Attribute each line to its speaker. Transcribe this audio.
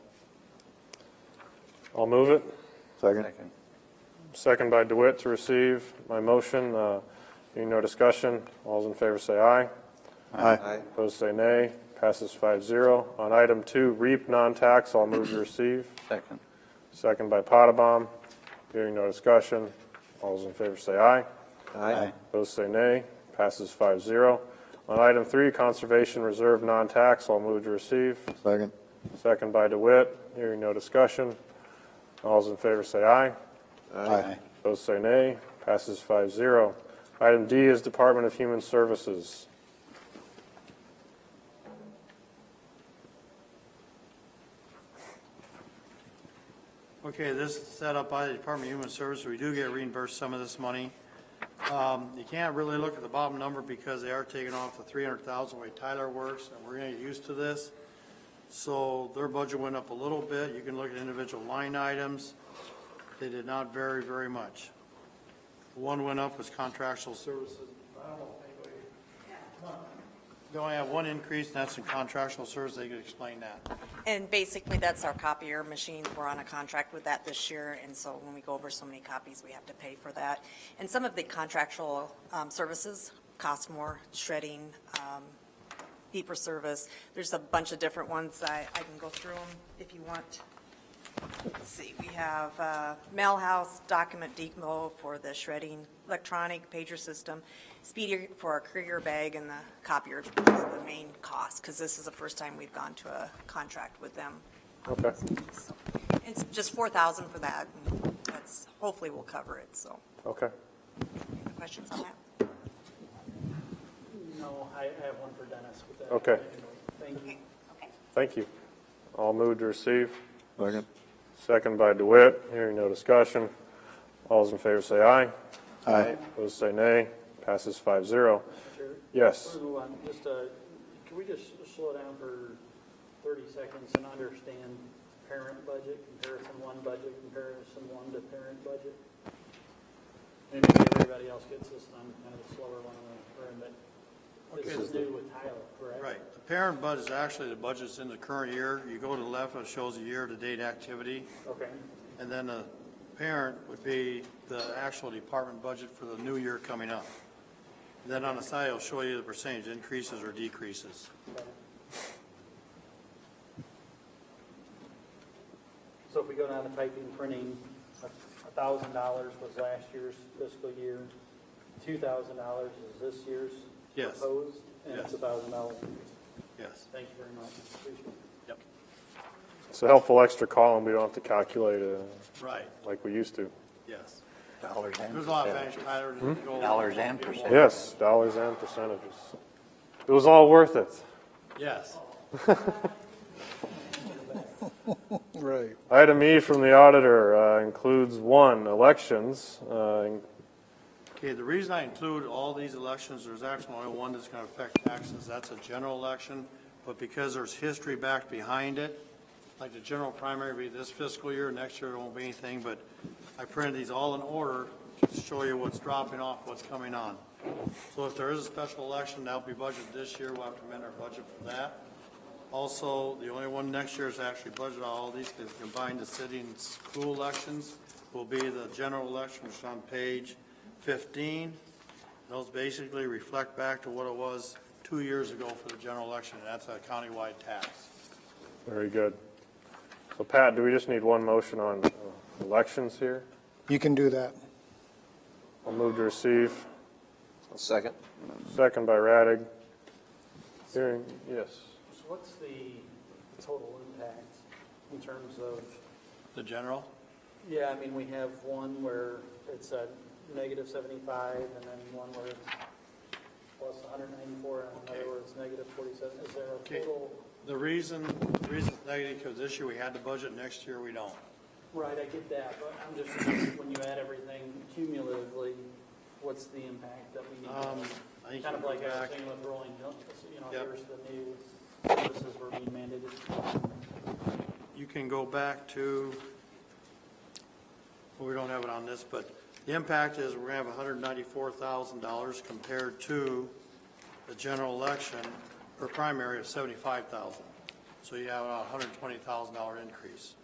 Speaker 1: I'll move it.
Speaker 2: Second?
Speaker 1: Second by DeWitt to receive my motion. Uh, Being no discussion, all's in favor say aye.
Speaker 2: Aye.
Speaker 1: Opposed say nay. Passes 5-0. On item two, REAP non-tax, I'll move to receive.
Speaker 2: Second.
Speaker 1: Second by Potabom. Hearing no discussion, all's in favor say aye.
Speaker 2: Aye.
Speaker 1: Opposed say nay. Passes 5-0. On item three, Conservation Reserve non-tax, I'll move to receive.
Speaker 2: Second?
Speaker 1: Second by DeWitt. Hearing no discussion, all's in favor say aye.
Speaker 2: Aye.
Speaker 1: Opposed say nay. Passes 5-0. Item D is Department of Human Services.
Speaker 3: Okay, this is set up by the Department of Human Services. We do get reimbursed some of this money. Um, You can't really look at the bottom number because they are taking off the 300,000 way Tyler works, and we're going to get used to this. So their budget went up a little bit. You can look at individual line items. They did not vary very much. The One went up was contractual services. I don't know if anybody- They only have one increase, and that's in contractual services. They could explain that.
Speaker 4: And basically, that's our copier machine. We're on a contract with that this year, and so when we go over so many copies, we have to pay for that. And some of the contractual um, services cost more, shredding, um, deeper service. There's a bunch of different ones. I, I can go through them if you want. Let's see, we have uh, mail house, document depot for the shredding, electronic pager system, speedy for our courier bag, and the copier is the main cost, because this is the first time we've gone to a contract with them.
Speaker 1: Okay.
Speaker 4: So, It's just 4,000 for that, and that's, hopefully we'll cover it, so.
Speaker 1: Okay.
Speaker 4: Any questions on that?
Speaker 5: No, I I have one for Dennis with that.
Speaker 1: Okay.
Speaker 5: Thank you.
Speaker 1: Thank you. All moved to receive.
Speaker 2: Second?
Speaker 1: Second by DeWitt. Hearing no discussion. All's in favor say aye.
Speaker 2: Aye.
Speaker 1: Opposed say nay. Passes 5-0. Yes.
Speaker 5: Before we move on, just, uh, can we just slow down for thirty seconds and understand parent budget, comparison one budget, comparison one to parent budget? Maybe everybody else gets this, and I'm kind of a slower one in the room, but this
Speaker 3: Okay.
Speaker 5: is new with Tyler, correct?
Speaker 3: Right, the parent budget is actually the budget's in the current year. You go to the left, it shows the year-to-date activity,
Speaker 5: Okay,
Speaker 3: and then the parent would be the actual department budget for the new year coming up. Then on the side, it'll show you the percentage increases or decreases.
Speaker 5: so if we go down to typing, printing, a thousand dollars was last year's fiscal year, two thousand dollars is this year's
Speaker 3: Yes.
Speaker 5: proposed, and it's a
Speaker 3: Yes.
Speaker 5: thousand dollars.
Speaker 3: Yes.
Speaker 5: Thank you very much, appreciate it.
Speaker 3: Yep.
Speaker 1: It's a helpful extra column. We don't have to calculate it
Speaker 3: Right,
Speaker 1: like we used to.
Speaker 3: yes.
Speaker 2: Dollars and
Speaker 3: There's a lot of
Speaker 2: percentages. Hmm?
Speaker 3: factors, Tyler, to go.
Speaker 2: Dollars and percent.
Speaker 1: Yes, dollars and percentages. It was all worth it.
Speaker 3: Yes.
Speaker 1: Item E from the auditor uh, includes one, elections. uh, in-
Speaker 3: Okay, the reason I include all these elections, there's actually only one that's going to affect taxes, that's a general election, but because there's history back behind it, like the general primary will be this fiscal year, next year it won't be anything, but I printed these all in order to show you what's dropping off, what's coming on. So if there is a special election, that'll be budgeted this year, we'll have to amend our budget for that. Also, the only one next year is actually budgeted, all these, because combined the city and school elections will be the general election, which is on page 15. Those basically reflect back to what it was two years ago for the general election, and that's a countywide tax.
Speaker 1: Very good. So Pat, do we just need one motion on uh, elections here?
Speaker 6: You can do that.
Speaker 1: I'll move to receive.
Speaker 2: Second?
Speaker 1: Second by Radig. Hearing, yes.
Speaker 5: So what's the total impact in terms of,
Speaker 3: The general?
Speaker 5: yeah, I mean, we have one where it's a negative seventy-five, and then one where it's plus hundred ninety-four, and
Speaker 3: Okay.
Speaker 5: another where it's negative forty-seven. Is there a
Speaker 3: Okay.
Speaker 5: total?
Speaker 3: The reason, the reason's negative, because this year we had the budget, next year we don't.
Speaker 5: Right, I get that, but I'm just, when you add everything cumulatively, what's the impact that we
Speaker 3: Um,
Speaker 5: need?
Speaker 3: I think
Speaker 5: Kind
Speaker 3: you
Speaker 5: of
Speaker 3: go
Speaker 5: like
Speaker 3: back-
Speaker 5: everything with rolling hills, you know,
Speaker 3: Yep.
Speaker 5: here's the new services we're being mandated.
Speaker 3: You can go back to, well, we don't have it on this, but the impact is we're gonna have hundred ninety-four thousand dollars compared to the general election or primary of seventy-five thousand. So you have a hundred twenty thousand dollar increase.